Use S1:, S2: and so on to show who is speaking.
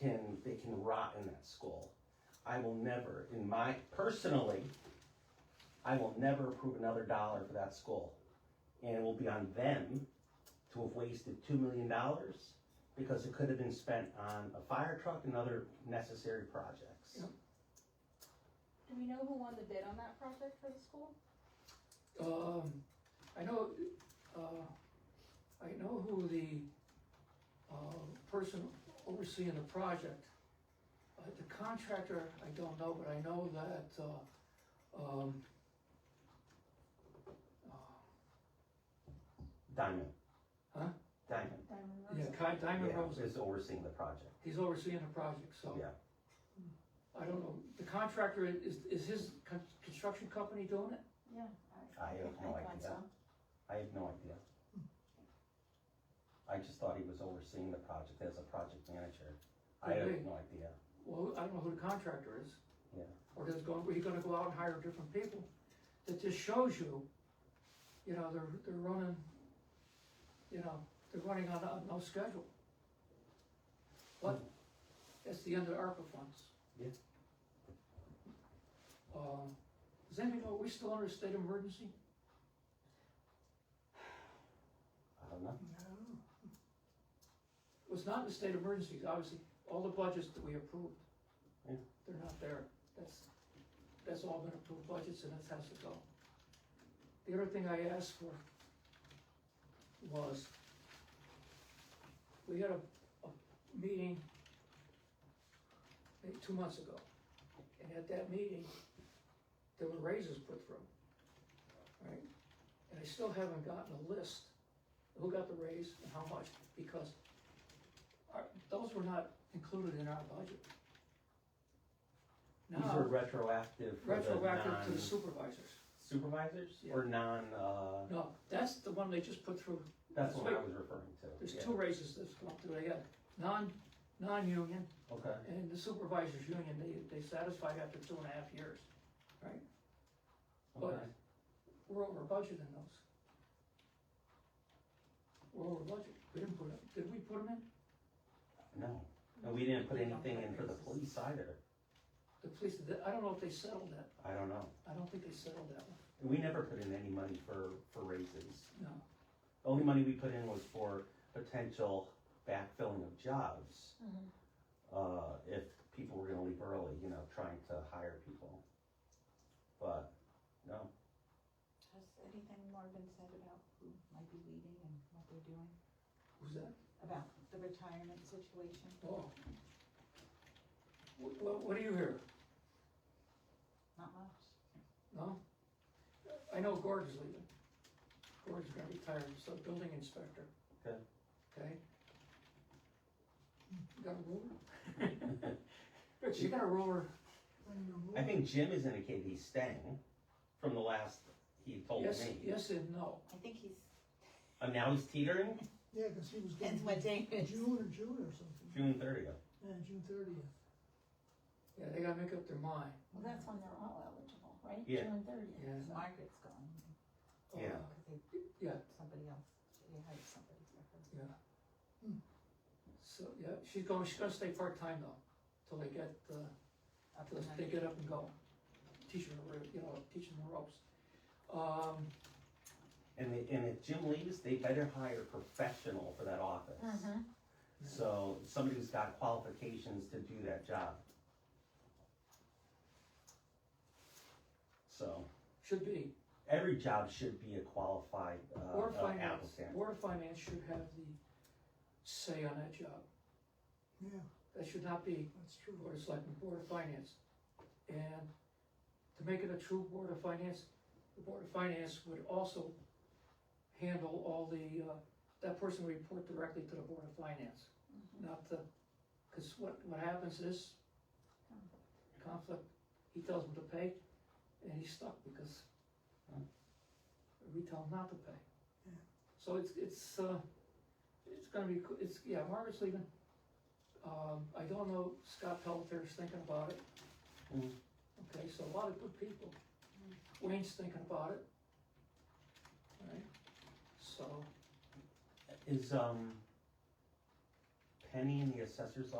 S1: can they can rot in that skull. I will never, in my personally, I will never approve another dollar for that skull, and it will be on them to have wasted two million dollars because it could have been spent on a fire truck and other necessary projects.
S2: Do we know who won the bid on that project for the school?
S3: Um, I know, uh, I know who the, uh, person overseeing the project. Uh, the contractor, I don't know, but I know that, uh, um,
S1: Diamond.
S3: Huh?
S1: Diamond.
S3: yeah,
S2: Diamond
S3: Ki- Diamond
S1: Yeah,
S3: Rose,
S1: Is overseeing the project.
S3: he's overseeing the project, so.
S1: Yeah.
S3: I don't know, the contractor, is, is his con- construction company doing it?
S4: Yeah.
S1: I have no
S4: I thought
S1: idea.
S4: so.
S1: I have no idea.
S3: Hmm.
S1: I just thought he was overseeing the project as a project manager. I
S3: Could
S1: have
S3: be.
S1: no idea.
S3: Well, I don't know who the contractor is.
S1: Yeah.
S3: Or there's going, were you gonna go out and hire different people? That just shows you, you know, they're, they're running, you know, they're running on, on no schedule. But it's the end of ARPA funds.
S1: Hmm. Yeah.
S3: Um, does anybody know, are we still under a state of emergency?
S1: I don't know.
S3: It was not in a state of emergency, obviously, all the budgets that we approved.
S1: Yeah.
S3: They're not there, that's, that's all been approved budgets and it has to go. The other thing I asked for was, we had a, a meeting maybe two months ago, and at that meeting, there were raises put through, right? And I still haven't gotten a list of who got the raise and how much, because are- Those were not included in our budget.
S1: These are
S3: Now,
S1: retroactive for the
S3: retroactive to the
S1: non
S3: supervisors.
S1: supervisors
S3: Yeah.
S1: or non, uh,
S3: No, that's the one they just put through.
S1: that's what I
S3: Wait.
S1: was referring to.
S3: There's
S1: Yeah.
S3: two raises that's gone through. They got non, non-union
S1: Okay,
S3: and the supervisors union, they, they satisfied after two and a half years.
S1: okay.
S3: But- We're over budget in those. We're over budget. We didn't put it, did we put them in?
S1: No, and we didn't put anything in for the police either.
S3: The police, I don't know if they settled that.
S1: I don't know.
S3: I don't think they settled that one,
S1: We never put in any money for, for raises.
S3: no.
S1: The only money we put in was for potential backfilling of jobs.
S4: Mhm.
S1: Uh, if people were gonna leave early, you know, trying to hire people. But, no,
S4: Has anything more been said about who might be leaving and what they're doing?
S3: Who's that?
S4: About the retirement situation?
S3: Oh. What, what, what do you hear?
S4: Not much.
S3: No? I know Gordon's leaving. Gordon's gonna retire, so building inspector.
S1: Okay.
S3: Okay? You Got a ruler? Rich, you got a ruler?
S1: I think Jim has indicated he's staying from the last he told
S3: Yes,
S1: Oh, me.
S3: yes and no.
S4: I think he's.
S1: And now he's teetering
S5: Yeah, because he was going
S4: Depends what
S5: to
S4: day it is.
S5: June or June or something.
S1: June thirtieth.
S5: Yeah, June thirtieth.
S3: Yeah, they gotta make up their mind.
S4: Well, that's when they're all eligible, right?
S1: Yeah.
S4: June thirtieth.
S3: Yeah.
S4: Margaret's gone,
S1: Yeah.
S3: Uh,
S4: because they,
S3: Yeah.
S4: somebody else, they hired somebody for her.
S3: So, yeah, she's going, she's gonna stay part-time though, till they get, uh,
S4: Up
S3: Let's
S4: in
S3: pick it up and go. Teach them, the ro- you know, teach them the ropes. Um,
S1: And they, and if Jim leaves, they better hire a professional for that office.
S4: Mhm.
S1: So somebody who's got qualifications to do that job. So
S3: should be,
S1: every job should be a qualified uh,
S3: Board
S1: uh,
S3: of Finance,
S1: applicant.
S3: Board of Finance should have the say on that job.
S5: Yeah,
S3: That should not be
S5: that's true.
S3: Board of Selectmen, Board of Finance. And to make it a true Board of Finance, the Board of Finance would also handle all the, uh, that person would report directly to the Board of Finance,
S4: Mm-hmm.
S3: not the, because what, what happens is conflict, he tells them to pay, and he's stuck because uh, we tell him not to pay.
S5: Yeah.
S3: So it's, it's, uh, it's gonna be, co- it's, yeah, Margaret's leaving. Um, I don't know, Scott Pelliter's thinking about it.
S1: Mhm.
S3: Okay, so a lot of good people. Wayne's thinking about it. Right, so.
S1: Is um Penny in the assessor's